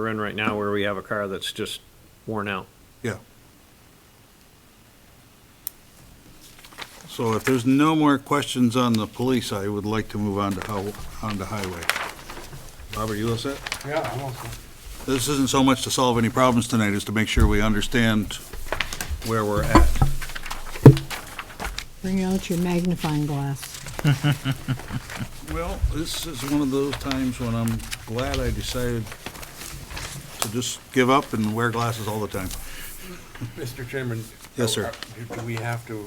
we're in right now where we have a car that's just worn out. Yeah. So if there's no more questions on the police, I would like to move on to how, on to highway. Bob, are you all set? Yeah, I'm also. This isn't so much to solve any problems tonight, as to make sure we understand where we're at. Bring out your magnifying glass. Well, this is one of those times when I'm glad I decided to just give up and wear glasses all the time. Mr. Chairman. Yes, sir. do- Do we have to,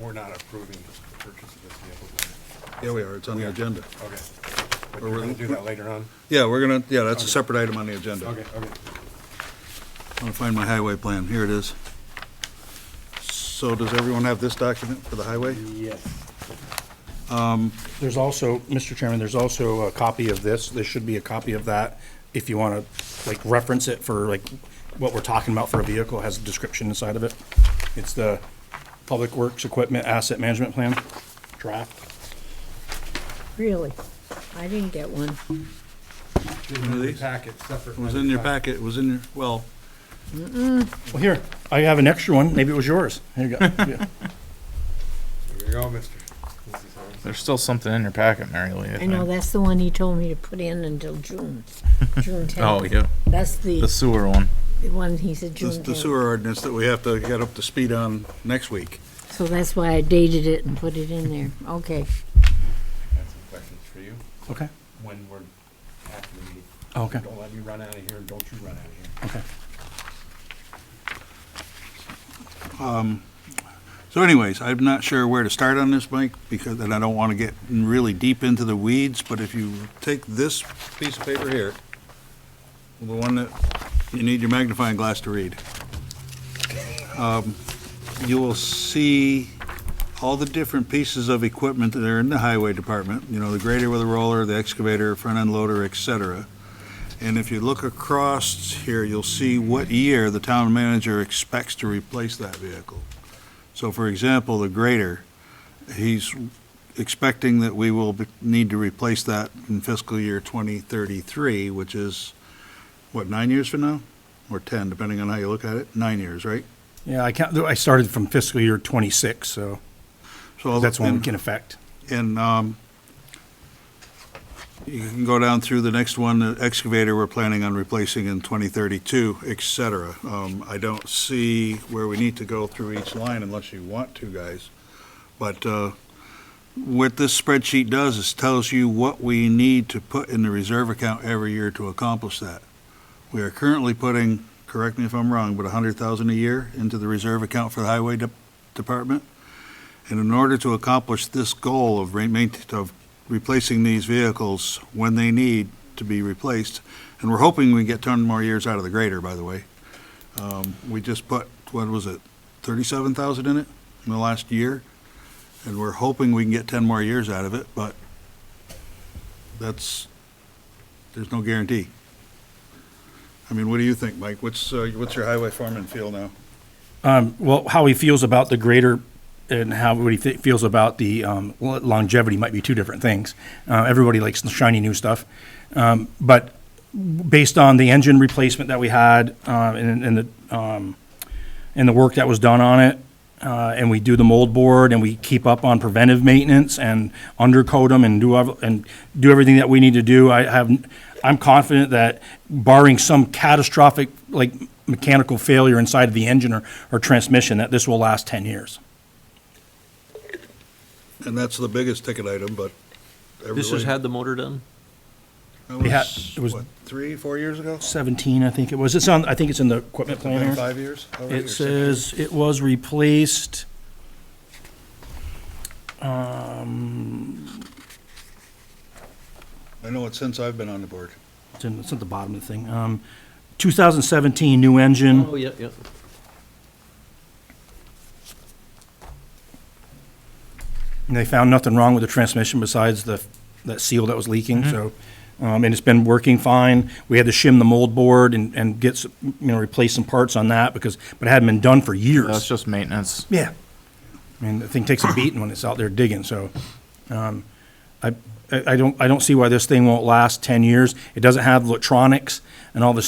we're not approving this purchase of this vehicle? Yeah, we are, it's on the agenda. Okay. But Or we're we're- gonna do that later on? Yeah, we're gonna, yeah, that's a separate item on the agenda. Okay, okay. I'm gonna find my highway plan, here it is. So does everyone have this document for the highway? Yes. There's also, Mr. Chairman, there's also a copy of this. There should be a copy of that if you want to, like, reference it for, like, what we're talking about for a vehicle, It has a description inside of it. It's the Public Works Equipment Asset Management Plan draft. Really? I didn't get one. One of these? Packet, separate. It was in your packet, it was in your, well, Well, here, I have an extra one. Maybe it was yours. Here you go. Yeah. Here you go, mister. This is ours. There's still something in your packet, Mary Lee. I know, that's the one he told me to put in until June, June 10th. Oh, yeah, That's the the sewer one. the one he said June this- the 10th. sewer ordinance that we have to get up to speed on next week. So that's why I dated it and put it in there. Okay. I have some questions for you Okay, when we're after the meeting. okay, Don't let me run out of here, and don't you run out of here. okay. So anyways, I'm not sure where to start on this, Mike, because, and I don't want to get really deep into the weeds, but if you take this piece of paper here, the one that you need your magnifying glass to read, um, you will see all the different pieces of equipment that are in the highway department, you know, the grader with a roller, the excavator, front end loader, et cetera. And if you look across here, you'll see what year the town manager expects to replace that vehicle. So for example, the grader, he's expecting that we will be- need to replace that in fiscal year 2033, which is, what, nine years from now? Or 10, depending on how you look at it? Nine years, right? Yeah, I can't, I started from fiscal year twenty-six, so So that's when we and- can affect. And um, you can go down through the next one, the excavator we're planning on replacing in 2032, et cetera. Um, I don't see where we need to go through each line unless you want to, guys. But uh, what this spreadsheet does is tells you what we need to put in the reserve account every year to accomplish that. We are currently putting, correct me if I'm wrong, but 100,000 a year into the reserve account for the highway de- department. And in order to accomplish this goal of re- maint- of replacing these vehicles when they need to be replaced, and we're hoping we get ten more years out of the grader, by the way. Um, we just put, what was it, thirty-seven thousand in it in the last year? And we're hoping we can get ten more years out of it, but that's, there's no guarantee. I mean, what do you think, Mike? What's, uh, what's your highway foreman feel now? Um, well, how he feels about the greater and how what he th- feels about the um, lo- longevity might be two different things. Uh, everybody likes the shiny new stuff, um, but based on the engine replacement that we had uh, and, and the um, and the work that was done on it, uh, and we do the mold board and we keep up on preventive maintenance and undercoat them and do, ev- and do everything that we need to do, I have, I'm confident that barring some catastrophic, like mechanical failure inside of the engine or, or transmission, that this will last ten years. And that's the biggest ticket item, but. This has everybody- had the motor done? That They had- was, it was- what, three, four years ago? Seventeen, I think it was. It's on, I think it's in the equipment plan Been here. Five years? already, or It six says it was replaced, um, years? uh, I know it since I've been on the board. it's in, it's at the bottom of the thing, um, two thousand seventeen new engine. Oh, yeah, yeah. And they found nothing wrong with the transmission besides the, that seal that was leaking, Mm-hmm. so, um, and it's been working fine. We had to shim the mold board and, and get, some- you know, replace some parts on that because, but it hadn't been done for That's years. just maintenance. Yeah. I mean, the thing takes a beating when it's out there digging, so, um, I, I I don't, I don't see why this thing won't last ten years. It doesn't have electronics and all this